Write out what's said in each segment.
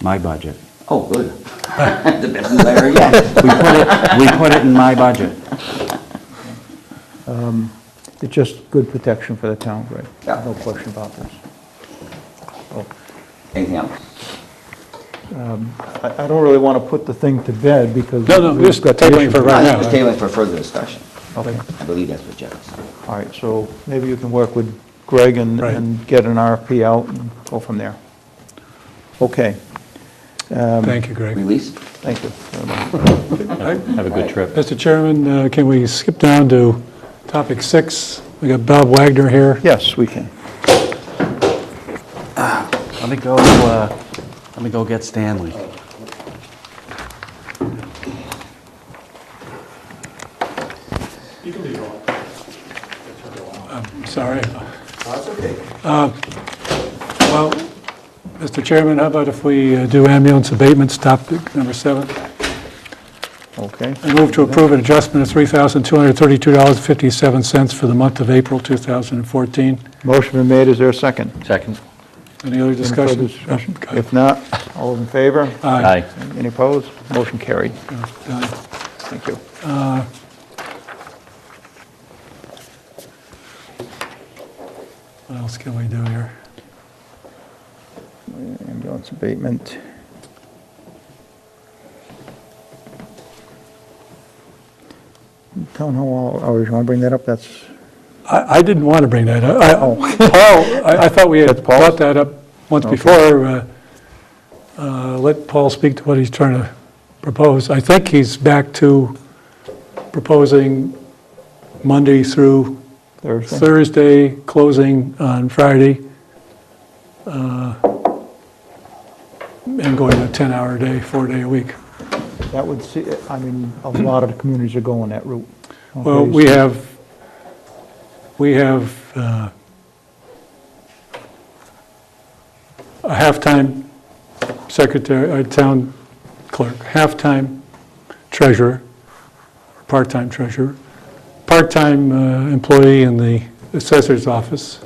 my budget. Oh, good. The best is there again. We put it, we put it in my budget. It's just good protection for the town, Greg. Yeah. No question about this. So, Anything else? I I don't really want to put the thing to bed because. No, no, we've just got the tabling issue. for right No, now. Just tabling for further discussion. Okay, I believe that's what Jeff said. all right, so maybe you can work with Greg and Right. and get an RFP out and go from there. Okay, Thank you, Greg. Release? thank you. very much. Have a good trip. Mr. Chairman, uh, can we skip down to topic six? We got Bob Wagner here. Yes, we can. Let me go, uh, let me go get Stanley. Sorry. Uh, Well, Mr. Chairman, how about if we uh, do ambulance abatements, topic number seven? Okay, I move to approve an adjustment of $3,232.57 for the month of April 2014. motion been made, is there a second? Second. Any other Any further discussion? discussion? Okay. If not, all in favor? Aye. Any opposed? Motion carried, Aye. thank you. What else can we do here? Ambulance abatement. Town hall hours, oh, you want to bring that up? That's, I, I didn't want to bring that up. I- Paul, I, I thought we had brought that up once before. uh, uh, Let Paul speak to what he's trying to propose. I think he's back to proposing Monday through Thursday? Thursday, closing on Friday, uh, and going to 10-hour day, four-day a week. That would see, I mean, a lot of communities are going that route. Well, Okay, we so- have, we have uh, a half-time secretary, uh town clerk, half-time treasurer, part-time treasurer, part-time uh, employee in the assessor's office.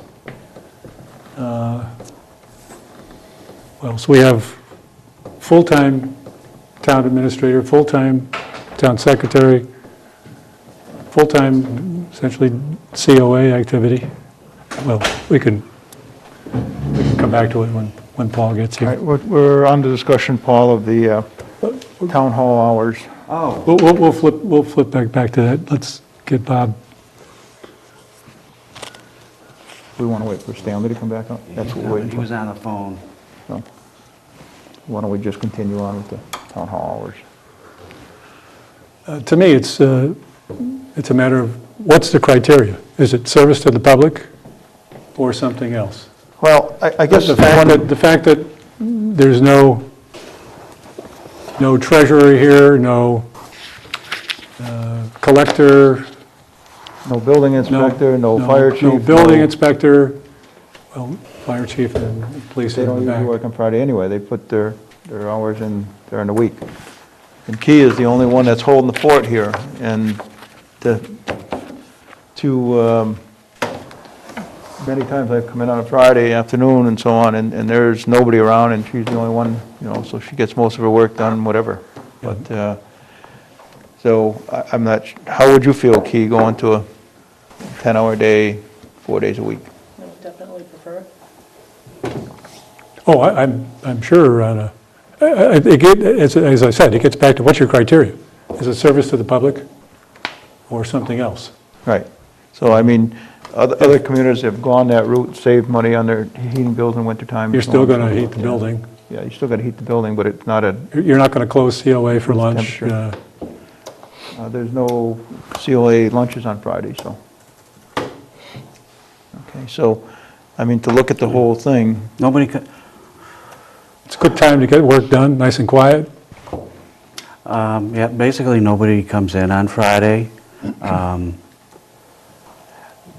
Uh, What else? We have full-time town administrator, full-time town secretary, full-time, essentially COA activity. Well, we can, we can come back to it when, when Paul gets All right, here. we're- we're on to discussion, Paul, of the uh, town hall hours. Oh. We'll, we'll we'll flip, we'll flip back, back to that. Let's get Bob. We want to wait for Stanley to come back up? That's what we're waiting He for. was on the phone. So, Why don't we just continue on with the town hall hours? Uh, To me, it's, uh, it's a matter of, what's the criteria? Is it service to the public or something else? Well, I I guess The fact that, the fact that there's no, no treasurer here, no uh, collector, No building No, inspector, no fire chief. No building inspector, well, fire chief and police They are don't in usually the work back. on Friday anyway, they put their, their hours in during the week. And Key is the only one that's holding the fort here, and to, to, um, many times I've come in on a Friday afternoon and so on, and, and there's nobody around, and she's the only one, you know, so she gets most of her work done, whatever. But, uh, so, I, I'm not, su- how would you feel, Key, going to a 10-hour day, four days a week? I would definitely prefer it. Oh, I- I'm, I'm sure on a, I- I- it get- as as I said, it gets back to what's your criteria? Is it service to the public or something else? Right. So, I mean, other, other communities have gone that route, saved money on their heating bills in wintertime. You're and so still on going and to so heat forth. the building. Yeah, you still gotta heat the building, but it's not a, You're not going to close COA for lunch. uh, temperature. uh, there's no COA lunches on Friday, so. Okay, so, I mean, to look at the whole thing, Nobody could, It's a good time to get work done, nice and quiet. Um, Yeah, basically, nobody comes in on Friday. Um,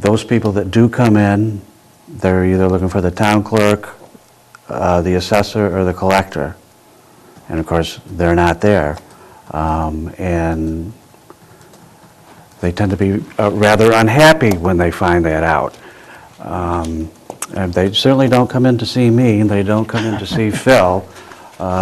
Those people that do come in, they're either looking for the town clerk, uh, the assessor, or the collector. And of course, they're not there. Um, And they tend to be uh, rather unhappy when they find that out. Um, And they certainly don't come in to see me, and they don't come in to see Phil.